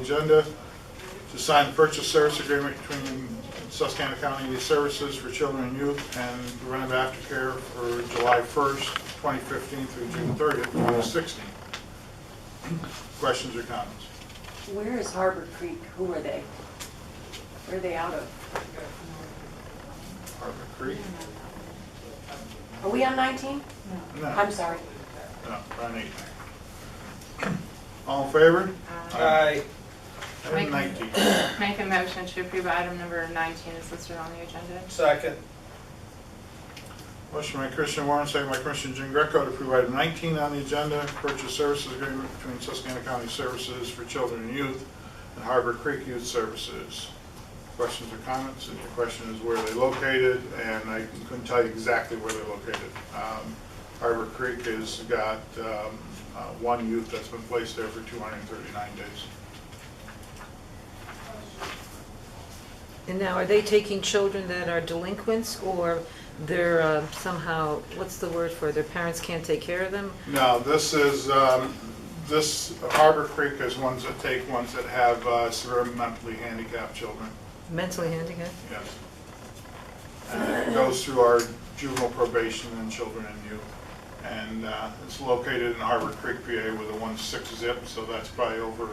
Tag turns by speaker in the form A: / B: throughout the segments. A: agenda to sign the purchase service agreement between Susquehanna County Youth Services for Children and Youth and preventive aftercare for July 1st, 2015 through June 30th, 2016. Questions or comments?
B: Where is Harbor Creek? Who are they? Where are they out of?
A: Harbor Creek?
B: Are we on 19?
A: No.
B: I'm sorry.
A: No, Ron eight. All in favor?
C: Aye.
A: Item 19.
D: Make a motion to approve item number 19 is listed on the agenda.
C: Second.
A: Motion by Christian Warren, second by Christian Jean Greco to approve item 19 on the agenda, purchase services agreement between Susquehanna County Services for Children and Youth and Harbor Creek Youth Services. Questions or comments? And the question is where are they located, and I couldn't tell you exactly where they're located. Um, Harbor Creek has got um, uh, one youth that's been placed there for 239 days.
E: And now, are they taking children that are delinquents, or they're uh, somehow, what's the word for, it? their parents can't take care of them?
A: No, this is, um, this Harbor Creek is ones that take ones that have uh, severe mentally handicapped children,
E: Mentally handicapped?
A: yes. And it goes through our juvenile probation and children and youth. And uh, it's located in Harbor Creek, PA with a one-six zip, so that's probably over,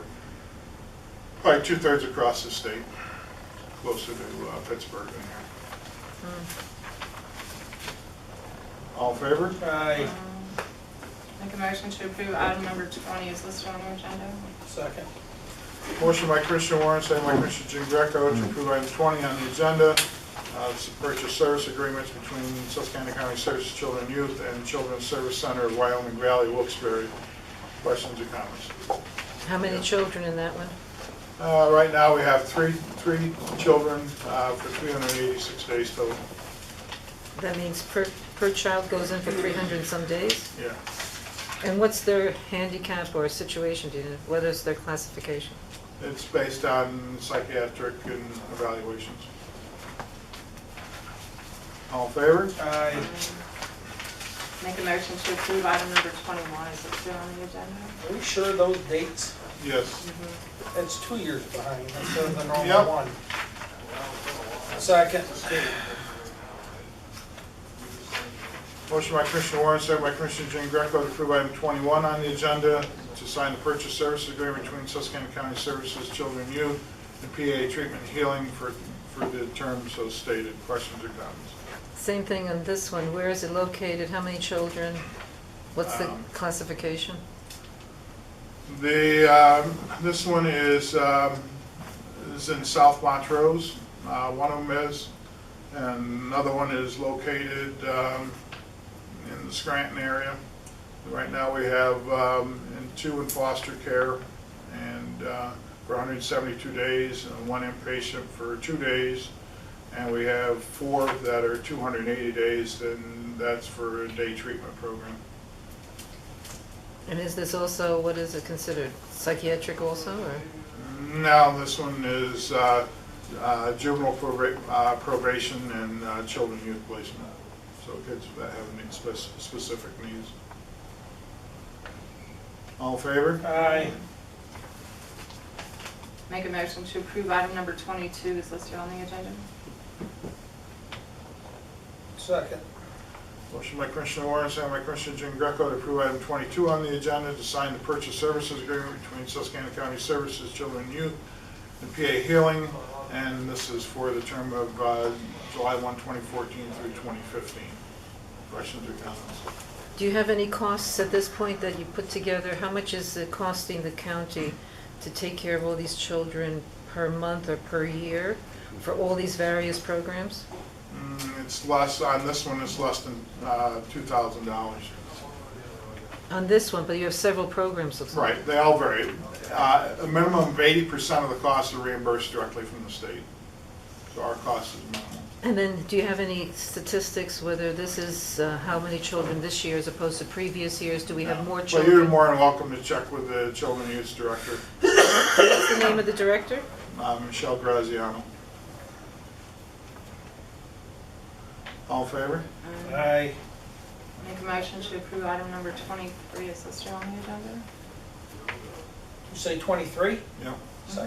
A: probably two-thirds across the state, closer to uh, Pittsburgh than here. All in favor?
C: Aye.
D: Make a motion to approve item number 20 is listed on the agenda.
C: Second.
A: Motion by Christian Warren, second by Christian Jean Greco to approve item 20 on the agenda, uh, it's the purchase service agreements between Susquehanna County Services Children and Youth and Children's Service Center of Wyoming Valley, Wilkes-Barre. Questions or comments?
E: How many children in that one?
A: Uh, Right now, we have three, three children uh, for 386 days total.
E: That means per, per child goes in for 300 and some days?
A: Yeah.
E: And what's their handicap or situation, do you know? What is their classification?
A: It's based on psychiatric and evaluations. All in favor?
C: Aye.
D: Make a motion to approve item number 21 is listed on the agenda.
C: Are we sure those dates,
A: Yes.
C: it's two years behind instead of the
A: Yep.
C: normal one? Second.
A: Motion by Commissioner Warren, second by Commissioner Jean Greco to approve item 21 on the agenda to sign the purchase service agreement between Susquehanna County Services Children and Youth and PA Treatment and Healing for, for the terms so stated. Questions or comments?
E: Same thing on this one, where is it located, how many children? What's the
A: Um,
E: classification?
A: The, um, this one is, um, is in South Montrose, uh, one of them is, and another one is located um, in the Scranton area. Right now, we have um, in two in foster care and uh, for 172 days, and one inpatient for two days, and we have four that are 280 days, and that's for a day treatment program.
E: And is this also, what is it considered, psychiatric also, or?
A: No, this one is uh, uh, juvenile proba- uh, probation and uh, children youth placement. So kids that have need- spec- specific needs. All in favor?
C: Aye.
D: Make a motion to approve item number 22 is listed on the agenda.
C: Second.
A: Motion by Commissioner Warren, second by Commissioner Jean Greco to approve item 22 on the agenda to sign the purchase services agreement between Susquehanna County Services, Children and Youth, and PA Healing, and this is for the term of uh, July 1, 2014 through 2015. Questions or comments?
E: Do you have any costs at this point that you put together? How much is it costing the county to take care of all these children per month or per year for all these various programs?
A: Mm, It's less, on this one, it's less than uh, $2,000.
E: On this one, but you have several programs, looks like.
A: Right, they all vary. Uh, A minimum of 80% of the costs are reimbursed directly from the state. So our cost is minimal.
E: And then, do you have any statistics whether this is, uh, how many children this year as opposed to previous years? Do we have more
A: But you're
E: children?
A: more than welcome to check with the Children and Youth Director,
E: What's the name of the director?
A: uh, Michelle Graziano. All in favor?
C: Aye.
D: Make a motion to approve item number 23 is listed on the agenda.
C: You say 23?
A: Yep.